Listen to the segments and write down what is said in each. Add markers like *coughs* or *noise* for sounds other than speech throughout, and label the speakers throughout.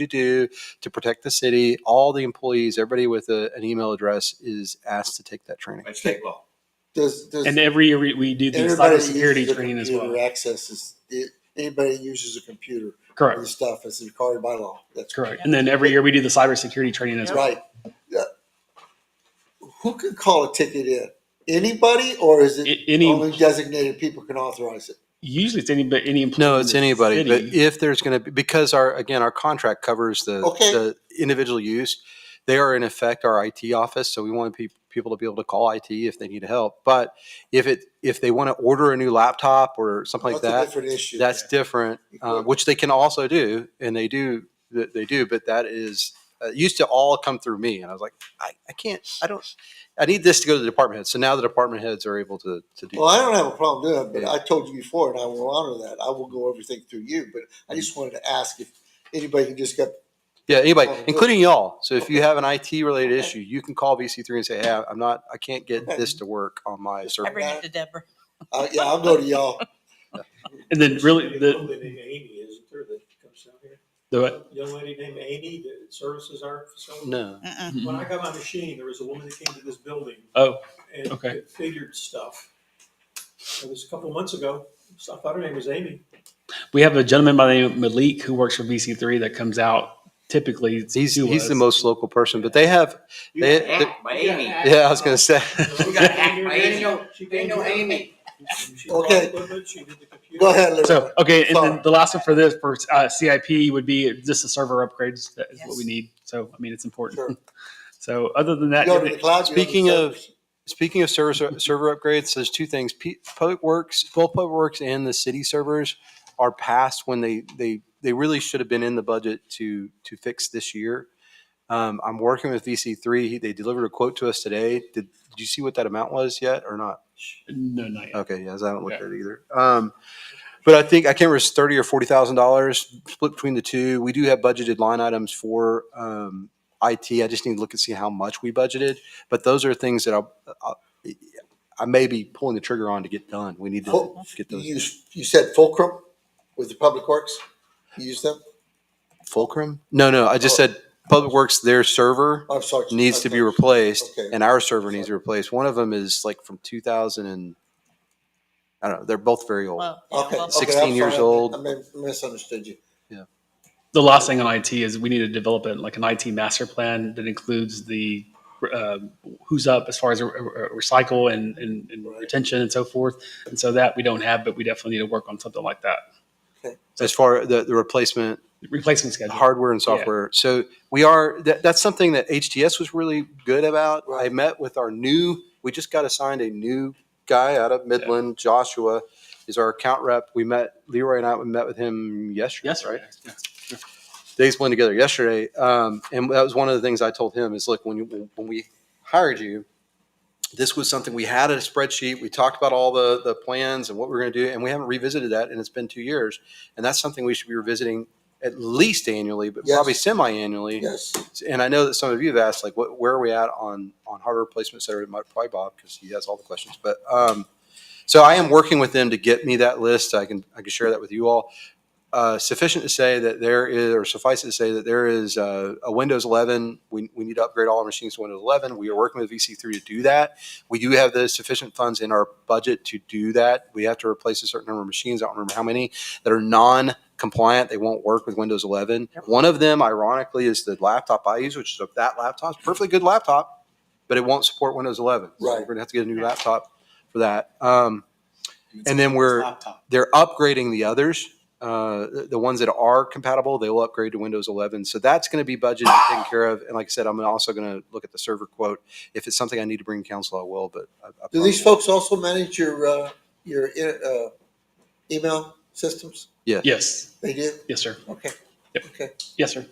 Speaker 1: to do to protect the city. All the employees, everybody with a, an email address is asked to take that training.
Speaker 2: by state law.
Speaker 3: Does, does.
Speaker 4: And every year we, we do the
Speaker 3: everybody that
Speaker 4: cybersecurity
Speaker 3: uses a
Speaker 4: training as
Speaker 3: computer
Speaker 4: well.
Speaker 3: Access is, it- anybody that uses a computer,
Speaker 4: Correct.
Speaker 3: this stuff is required by law. That's
Speaker 4: Correct. And then every year we do the cybersecurity training as well.
Speaker 3: Right. Yeah. Who can call a ticket in? Anybody or is it
Speaker 4: A- Any,
Speaker 3: only designated people can authorize it?
Speaker 4: usually it's any, but any employee.
Speaker 1: No,
Speaker 4: in
Speaker 1: it's
Speaker 4: the
Speaker 1: anybody. But
Speaker 4: city.
Speaker 1: if there's going to be, because our, again, our contract covers the,
Speaker 3: Okay.
Speaker 1: the individual use. They are in effect our IT office, so we want pe- people to be able to call IT if they need help. But if it, if they want to order a new laptop or something like
Speaker 3: That's a
Speaker 1: that,
Speaker 3: different issue.
Speaker 1: that's different, uh,
Speaker 3: Equipment.
Speaker 1: which they can also do, and they do, th- they do. But that is uh, it used to all come through me, and I was like, I, I can't, I don't, I need this to go to the department heads. So now the department heads are able to to do.
Speaker 3: Well, I
Speaker 1: that.
Speaker 3: don't have a problem doing it, but I told you before, and I will honor that. I will go everything through you, but I
Speaker 4: Mm-hmm.
Speaker 3: just wanted to ask if anybody can just get,
Speaker 1: Yeah, anybody,
Speaker 3: Oh, good.
Speaker 1: including y'all. So if you have an IT related
Speaker 3: Okay.
Speaker 1: issue, you can call VC3 and say, hey, I'm not, I can't get
Speaker 3: Okay.
Speaker 1: this to work on my
Speaker 3: Just
Speaker 1: server.
Speaker 3: every-
Speaker 5: bring it to Deborah.
Speaker 3: uh, yeah, I'll go to y'all.
Speaker 4: And then really the,
Speaker 2: Young lady named Amy, isn't there, that comes down here?
Speaker 4: the,
Speaker 2: Young lady named Amy that services our facility.
Speaker 1: No.
Speaker 5: Mm-mm.
Speaker 2: When I got my machine, there was a woman that came to this building
Speaker 4: oh,
Speaker 2: and
Speaker 4: Okay.
Speaker 2: that figured stuff. It was a couple months ago. So I thought her name was Amy. *laughs*
Speaker 4: we have a gentleman by the name of Malik who works for VC3 that comes out typically.
Speaker 1: He's,
Speaker 4: to
Speaker 1: he's the
Speaker 4: us.
Speaker 1: most local person, but they have,
Speaker 6: You
Speaker 1: They-
Speaker 6: got hacked by Amy.
Speaker 1: yeah, I was going to say.
Speaker 3: *laughs*
Speaker 6: You got hacked by Amy.
Speaker 2: She
Speaker 6: They
Speaker 2: came
Speaker 6: know
Speaker 2: here.
Speaker 6: Amy.
Speaker 2: She bought
Speaker 3: Okay.
Speaker 2: equipment, She did the computer.
Speaker 3: Go ahead, Larry.
Speaker 4: So, okay. And
Speaker 3: Sorry.
Speaker 4: then the last one for this, for uh, CIP would be just the server upgrades. That is what we
Speaker 5: Yes.
Speaker 4: need. So, I mean, it's
Speaker 3: Sure.
Speaker 4: important. *laughs* So other than that,
Speaker 3: Go to the cloud. you have the
Speaker 1: Speaking of-
Speaker 3: servers.
Speaker 1: Speaking of server, server upgrades, there's two things. P- Public Works, both Public Works and the city servers are past when they, they, they really should have been in the budget to, to fix this year. Um, I'm working with VC3. They delivered a quote to us today. Did, did you see what that amount was yet or not?
Speaker 4: no, not yet.
Speaker 1: Okay, yes, I haven't looked
Speaker 4: Yeah.
Speaker 1: at it either. Um, but I think I can't remember if it's thirty or forty thousand dollars split between the two. We do have budgeted line items for um, IT. I just need to look and see how much we budgeted. But those are things that I'll, I'll, I may be pulling the trigger on to get done. We need to
Speaker 3: Full-
Speaker 1: get
Speaker 3: You,
Speaker 1: those
Speaker 3: use- you said Fulcrum with the Public Works? You use them?
Speaker 1: fulcrum. No, no, I just
Speaker 3: Oh.
Speaker 1: said Public Works. Their server
Speaker 3: I'm sorry.
Speaker 1: needs to be replaced,
Speaker 3: Okay.
Speaker 1: and our server needs to be replaced. One of them is like from two thousand and I don't know. They're both very old.
Speaker 5: Well, yeah,
Speaker 3: Okay.
Speaker 5: well,
Speaker 3: okay,
Speaker 1: 16
Speaker 3: I'm
Speaker 1: years
Speaker 3: sorry.
Speaker 1: old.
Speaker 3: I mi- misunderstood you.
Speaker 4: The last thing on IT is we need to develop it like an IT master plan that includes the uh, who's up as far as uh, recycle and, and, and retention and so forth. And so that we don't have, but we definitely need to work on something like that.
Speaker 1: As far the the replacement
Speaker 4: Replacement schedule.
Speaker 1: hardware and
Speaker 4: Yeah.
Speaker 1: software. So we are that, that's something that HTS was really good about. I
Speaker 3: Right.
Speaker 1: met with our new. We just got assigned a new guy out of Midland. Joshua is our account rep. We met Leroy and I. We met with him yesterday.
Speaker 4: Yes,
Speaker 1: right
Speaker 4: right. Yeah.
Speaker 1: days blend together yesterday. Um, and that was one of the things I told him is look, when you, when we hired you, this was something we had a spreadsheet. We talked about all the, the plans and what we are going to do, and we haven't revisited that. And it's been two years. And that's something we should be revisiting at least annually, but
Speaker 3: Yes.
Speaker 1: probably semi-annually.
Speaker 3: Yes.
Speaker 1: And I know that some of you have asked, like, what, where are we at on, on hardware replacement, et cetera? It might probably Bob, because he has all the questions. But, um, so I am working with them to get me that list. I can, I can share that with you all. Uh, sufficient to say that there is, or suffice it to say that there is, uh, a Windows 11. We, we need to upgrade all our machines to Windows 11. We are working with VC3 to do that. We do have the sufficient funds in our budget to do that. We have to replace a certain number of machines. I don't remember how many that are non compliant. They won't work with Windows 11. One of them, ironically, is the laptop I use, which is a- that laptop. It's a perfectly good laptop, but it won't support Windows 11. So We're
Speaker 3: Right.
Speaker 1: going to have to get a new laptop for that. Um, and then we're they're upgrading the others. Uh, the- the ones that are compatible, they will upgrade to Windows 11. So that's going to be budgeted and taken care of. And like I said, I'm also going to look at the server quote. If it's something I need to bring to council, I will. But I, I
Speaker 3: Do
Speaker 1: probably-
Speaker 3: these folks also manage your, uh, your, uh, email systems?
Speaker 4: Yes.
Speaker 3: They do?
Speaker 4: Yes, sir.
Speaker 3: Okay.
Speaker 4: Yep.
Speaker 3: Okay.
Speaker 4: Yes, sir.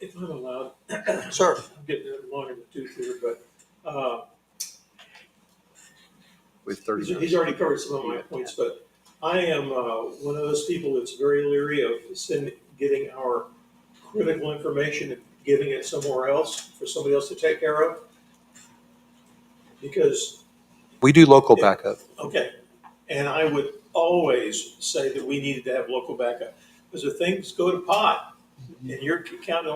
Speaker 2: If I'm allowed, *coughs*
Speaker 3: Sir,
Speaker 2: I'm getting a long in the tooth here, but, uh,
Speaker 1: with 30
Speaker 2: He's-
Speaker 1: minutes.
Speaker 2: He's already covered some of my points, but I am uh, one of those people that's very leery of sending, getting our critical information and giving it somewhere else for somebody else to take care of. Because,
Speaker 1: We do local
Speaker 2: Yeah.
Speaker 1: backup.
Speaker 2: okay, and I would always say that we needed to have local backup. Because if things go to pot, and you're counting